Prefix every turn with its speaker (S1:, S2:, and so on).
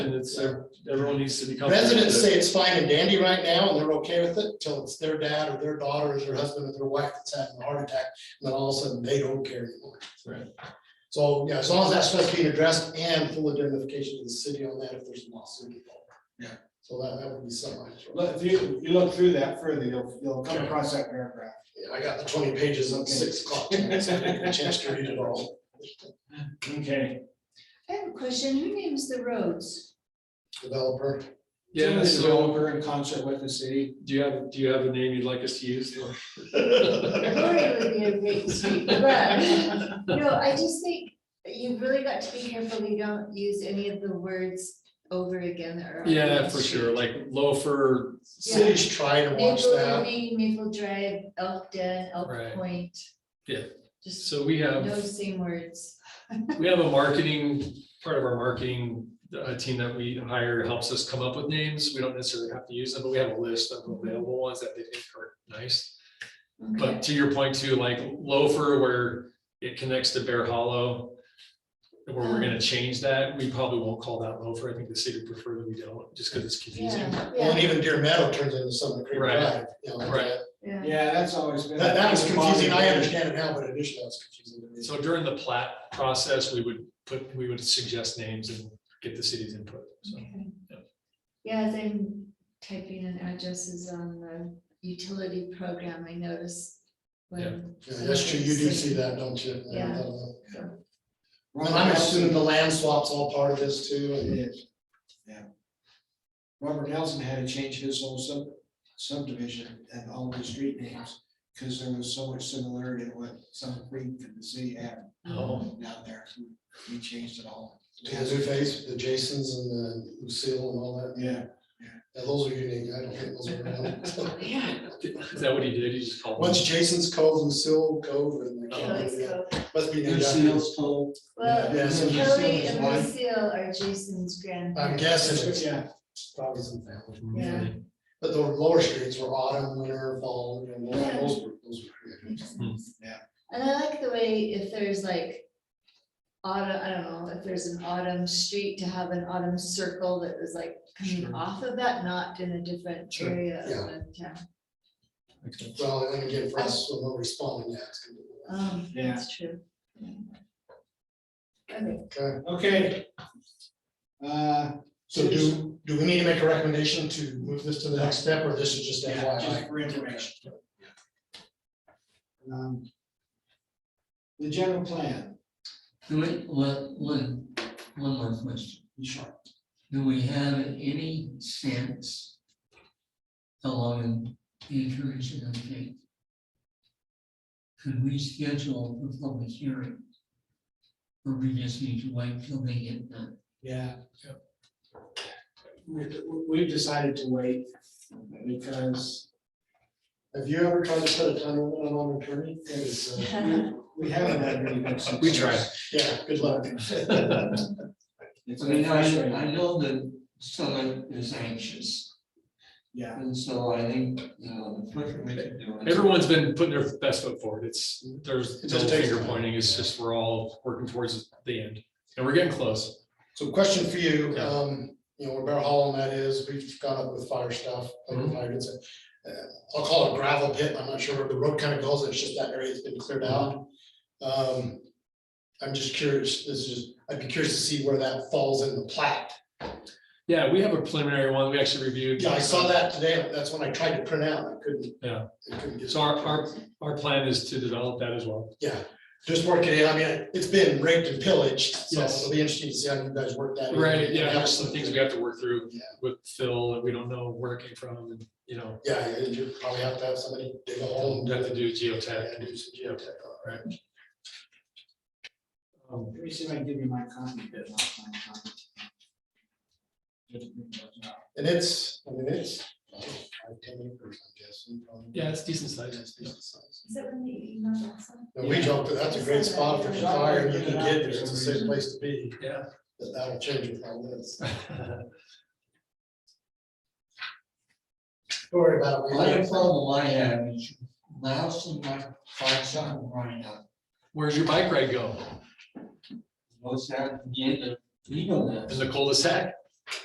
S1: it's, everyone needs to be comfortable. with
S2: Residents
S1: it.
S2: say it's fine and dandy right now, and they're okay with it till it's their dad or their daughter or their husband or their wife that's having a heart attack, and then all of a sudden they don't care anymore.
S1: Right.
S2: So, yeah, as long as that's supposed to be addressed and full identification to the city on that if there's a lawsuit involved.
S3: Yeah.
S2: So that, that would be something. I'd throw.
S3: Look, if you, if you look through that further, you'll, you'll come across that paragraph.
S2: Yeah, I got the twenty pages at six o'clock, tonight, so I didn't get a chance to read it all.
S3: Okay.
S4: I have a question. Who names the roads?
S2: Developer,
S1: Yeah,
S3: It's
S1: so
S3: a developer in concert with the city.
S1: do you have, do you have a name you'd like us to use?
S4: Gloria would be a great street, but, no, I just think you've really got to be careful you don't use any of the words over again that are. on
S1: Yeah,
S4: the
S1: for
S4: street.
S1: sure, like loafer,
S2: cities try to watch
S4: Maple
S2: that.
S4: Lane, Maple Drive, Elk Den,
S1: Right.
S4: Elk Point.
S1: Yeah.
S4: Just
S1: so um, we have.
S4: no same words.
S1: We have a marketing, part of our marketing uh, team that we hire helps us come up with names. We don't necessarily have to use them, but we have a list of available ones that they think are nice.
S4: Okay.
S1: But to your point too, like loafer where it connects to Bear Hollow. Where we're gonna change that, we probably won't call that loafer. I think the city would prefer that we don't, just because it's confusing.
S4: Yeah,
S2: Well, and
S4: yeah,
S2: even Deer Meadow turns into something creek
S1: Right.
S2: drive, you know, like
S1: Right.
S2: that.
S4: yeah.
S3: Yeah, that's always been.
S2: That, that was confusing, I understand it now, but initially that was confusing to me.
S1: So during the plat process, we would put, we would suggest names and get the city's input, so.
S4: Okay.
S1: yeah.
S4: Yeah, as I'm typing in addresses on the utility program, I notice when.
S2: Yeah, That's true, you do see that, don't you? I
S4: Yeah.
S2: don't know.
S4: so-
S2: And I'm assuming the land swap's all part of this too,
S3: It
S2: and
S3: is. Yeah. Robert Nelson had to change his whole sub subdivision and all of the street names, because there was so much similarity to what Summit Creek and the city had
S1: Oh.
S3: down there. He changed it all.
S2: the Zoo Face, the Jasons and the Lucille and all that.
S3: Yeah,
S2: Yeah, those are unique, I don't think those are around.
S4: Yeah.
S1: Is that what he did? He just called? them?
S2: Once Jason's Cove, Lucille Cove, and I
S4: Kelly
S2: can't remember,
S4: Seal.
S2: yeah, must be named after,
S3: Lucille's Cove.
S4: Well,
S2: Yeah, so
S4: Kelly
S3: Lucille is
S4: and
S3: one.
S4: Lucille are Jason's
S2: I'm
S4: grandparents.
S2: guessing it's
S3: Yeah,
S2: probably some family.
S4: Yeah.
S2: But the lower streets were autumn, winter, fall, you know,
S3: Yeah.
S2: those were, those were created.
S4: Makes
S1: Hmm.
S4: sense.
S3: Yeah.
S4: And I like the way if there's like autumn, I don't know, if there's an autumn street to have an autumn circle that was like coming
S1: Sure.
S4: off of that, not in a different
S1: Sure,
S4: area of
S2: yeah.
S4: the town.
S1: Makes sense.
S2: Well, and again, for us, we're not responding yet. it's gonna be-
S4: Um,
S3: Yeah.
S4: that's true. Okay,
S2: Okay.
S3: okay. Uh,
S2: So do, do we need to make a recommendation to move this to the next step, or this is just
S3: yeah, just
S2: FYI?
S3: for information. Um, The general plan,
S5: Do we, one, one, one more question.
S3: sure,
S5: Do we have any sense how long the intervention will take? Could we schedule the public hearing? Or we just need to wait till they get done?
S3: yeah. We, we've decided to wait because
S2: Have you ever tried to put a time limit on an attorney? It is, uh,
S3: we haven't had really good success.
S1: We tried.
S2: Yeah, good luck.
S3: It's
S5: I mean,
S3: been
S5: I, I
S3: frustrating,
S5: know that someone is anxious,
S3: yeah,
S5: and so I think, you know, the quicker we can do it.
S1: Everyone's been putting their best foot forward. It's, there's
S2: It
S1: no
S2: just takes
S1: finger
S2: time.
S1: pointing. It's just, we're all working towards the end and we're getting close.
S2: So question for you,
S1: Yeah.
S2: um, you know, where Bear Hollow that is, we've gone up with fire stuff, like
S1: Mm-hmm.
S2: if I could say, uh, I'll call it gravel pit, I'm not sure where the road kind of goes, it's just that area that's been cleared
S1: Mm-hmm.
S2: out. Um, I'm just curious, this is, I'd be curious to see where that falls in the plat.
S1: Yeah, we have a preliminary one. We actually reviewed.
S2: Yeah, I saw that today, that's when I tried to print out, I couldn't.
S1: Yeah.
S2: I couldn't get-
S1: So our, our, our plan is to develop that as well.
S2: Yeah, just work it in. I mean, it's been raped and pillaged, so
S1: Yes.
S2: it'll be interesting to see how you guys work that. in.
S1: Yeah, there's some things we have to work through
S2: Yeah.
S1: with Phil and we don't know where it came from and, you know,
S2: Yeah, and you probably have to have somebody dig a hole and
S1: we have to do
S2: Yeah,
S1: geotech.
S2: do some geotech, all right.
S1: Um,
S3: let me see if I can give you my copy. bit, not my copy. Just bring those up.
S2: And it's, I mean, it's five, ten acres, I'm guessing. probably.
S1: Yeah, it's decent size.
S2: It's decent size.
S4: Is that when the email that's on?
S2: And we joked that that's a great spot for the fire, you can get there, it's a safe place to be,
S1: Yeah.
S2: but that'll change with how it is. Don't worry about it.
S5: The
S2: we live-
S5: only problem I have is lousing my bike's on right now.
S1: Where's your bike ride go?
S5: Most out in the end of, you know
S1: In
S5: that.
S1: the cul-de-sac?